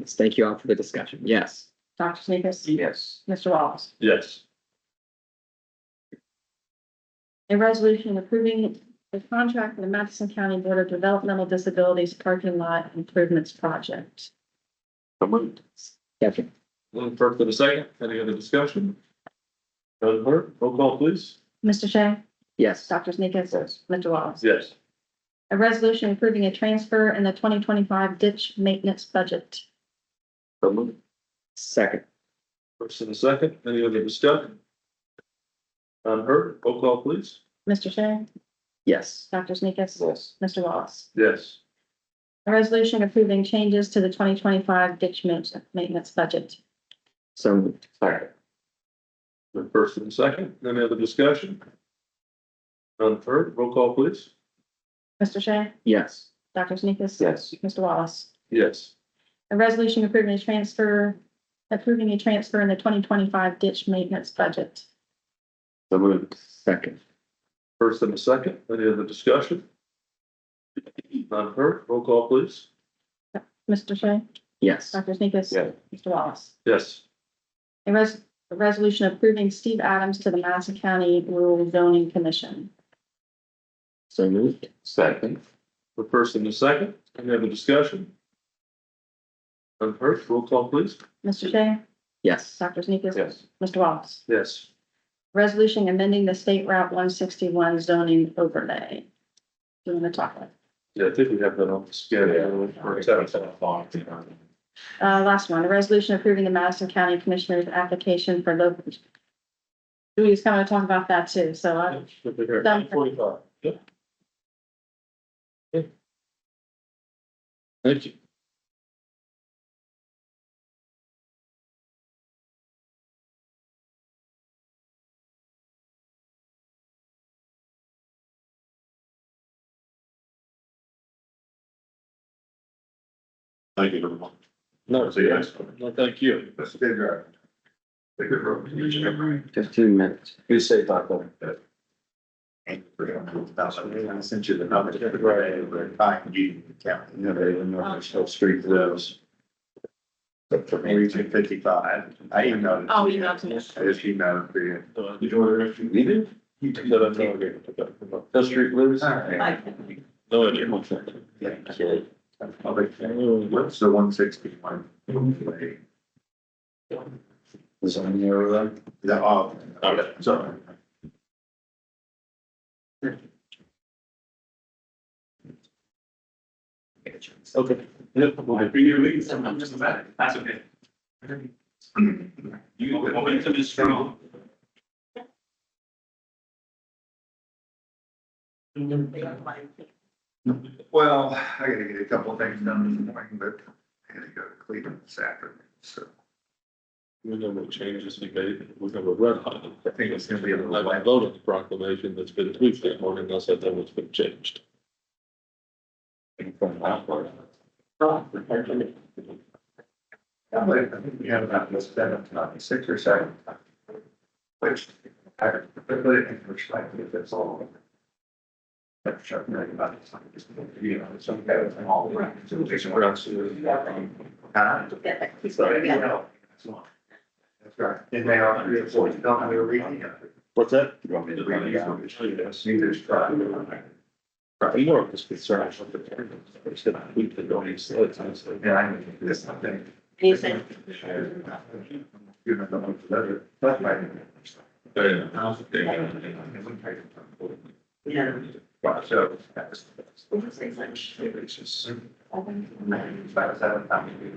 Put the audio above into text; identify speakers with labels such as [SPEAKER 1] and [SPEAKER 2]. [SPEAKER 1] Yes, Thank you all for the discussion. Yes.
[SPEAKER 2] Dr. Sneakers,
[SPEAKER 3] Yes.
[SPEAKER 2] Mr. Wallace.
[SPEAKER 3] Yes.
[SPEAKER 2] A resolution approving the contract for the Madison County Board of Developmental Disabilities Parking Lot Improvements Project.
[SPEAKER 3] So moved.
[SPEAKER 1] Second.
[SPEAKER 3] Lynn Park for the second. Any other discussion? Doesn't hurt. Roll call, please.
[SPEAKER 2] Mr. Shea,
[SPEAKER 1] Yes.
[SPEAKER 2] Dr. Sneakers,
[SPEAKER 3] Yes.
[SPEAKER 2] Mr. Wallace.
[SPEAKER 3] Yes.
[SPEAKER 2] A resolution approving a transfer in the twenty twenty-five ditch maintenance budget.
[SPEAKER 3] So moved.
[SPEAKER 1] Second.
[SPEAKER 3] First and a second. Any other discussion? None heard. Roll call, please.
[SPEAKER 2] Mr. Shea,
[SPEAKER 1] Yes.
[SPEAKER 2] Dr. Sneakers,
[SPEAKER 3] Yes.
[SPEAKER 2] Mr. Wallace.
[SPEAKER 3] Yes.
[SPEAKER 2] A resolution approving changes to the twenty twenty-five ditch ma- maintenance budget.
[SPEAKER 1] So moved.
[SPEAKER 3] Second. The first and second. Any other discussion? None heard. Roll call, please.
[SPEAKER 2] Mr. Shea,
[SPEAKER 1] Yes.
[SPEAKER 2] Dr. Sneakers.
[SPEAKER 3] Yes.
[SPEAKER 2] Mr. Wallace.
[SPEAKER 3] Yes.
[SPEAKER 2] A resolution approving a transfer, approving a transfer in the twenty twenty-five ditch maintenance budget.
[SPEAKER 3] So moved.
[SPEAKER 1] Second.
[SPEAKER 3] First and a second. Any other discussion? None heard. Roll call, please.
[SPEAKER 2] Mr. Shea,
[SPEAKER 1] Yes.
[SPEAKER 2] Dr. Sneakus?
[SPEAKER 3] Yeah.
[SPEAKER 2] Mr. Wallace?
[SPEAKER 3] Yes.
[SPEAKER 2] A res- a resolution approving Steve Adams to the Madison County Rural Zoning Commission.
[SPEAKER 1] So moved.
[SPEAKER 3] Second. The first and the second, any other discussion? None heard, roll call please.
[SPEAKER 2] Mr. Shea,
[SPEAKER 1] Yes.
[SPEAKER 2] Dr. Sneakus? Mr. Wallace?
[SPEAKER 3] Yes.
[SPEAKER 2] Resolution amending the state route one sixty-one zoning overlay. Do you want to talk about? it?
[SPEAKER 3] Yeah, I think we have that on the schedule. for ten.
[SPEAKER 2] Uh, last one, a resolution approving the Madison County Commissioner's application for local. Julie's kind of talk about that too, so I,
[SPEAKER 3] Should be here,
[SPEAKER 2] Done.
[SPEAKER 3] 8:45. Yep. Okay. Thank you. Thank you, everyone. No,
[SPEAKER 4] See you next
[SPEAKER 3] no, thank you.
[SPEAKER 4] That's a good drive. Take it from.
[SPEAKER 1] Fifteen minutes.
[SPEAKER 3] Be safe out there.
[SPEAKER 4] I sent you the number. Right. I can give you the count. You know, they even know there's still street those. But for region fifty-five, I emailed.
[SPEAKER 2] Oh, you emailed it.
[SPEAKER 4] I just emailed it for you.
[SPEAKER 3] Did you order if you needed?
[SPEAKER 4] You
[SPEAKER 3] No, no, no, okay. The street lives. No, I didn't.
[SPEAKER 4] What's the one sixty one? Is on the overlay? The, oh.
[SPEAKER 3] Okay.
[SPEAKER 4] Sorry.
[SPEAKER 3] Okay.
[SPEAKER 4] Well, for your reason, I'm just about, that's okay. You, momentum is strong. Well, I gotta get a couple of things done this morning, but I gotta go to Cleveland this afternoon, so
[SPEAKER 3] We know what changes we made, we're gonna red hot.
[SPEAKER 4] I think it's gonna be a little
[SPEAKER 3] I
[SPEAKER 4] wet.
[SPEAKER 3] voted the proclamation that's been tweaked that morning, unless that that was been changed.
[SPEAKER 4] Yeah, but I think we have about this seven to ninety-six or seven. Which, I, I put it in perspective, that's all. That's sure, right, about this, like, just, you know, some guys and all. Right. Huh? Sorry, you know, that's all. That's right, and they are, three or four, you don't have to read it.
[SPEAKER 3] What's that?
[SPEAKER 4] You want me to read it?
[SPEAKER 3] Yes.
[SPEAKER 4] Neither is try.
[SPEAKER 3] I'm more of this concern. They said I tweaked it, don't even say it, I said,
[SPEAKER 4] And I, this, I think.
[SPEAKER 2] You said-
[SPEAKER 4] You know, the one for the other, that's my. Yeah. Wow, so. that's- It was just. Ninety-five, seven, I mean,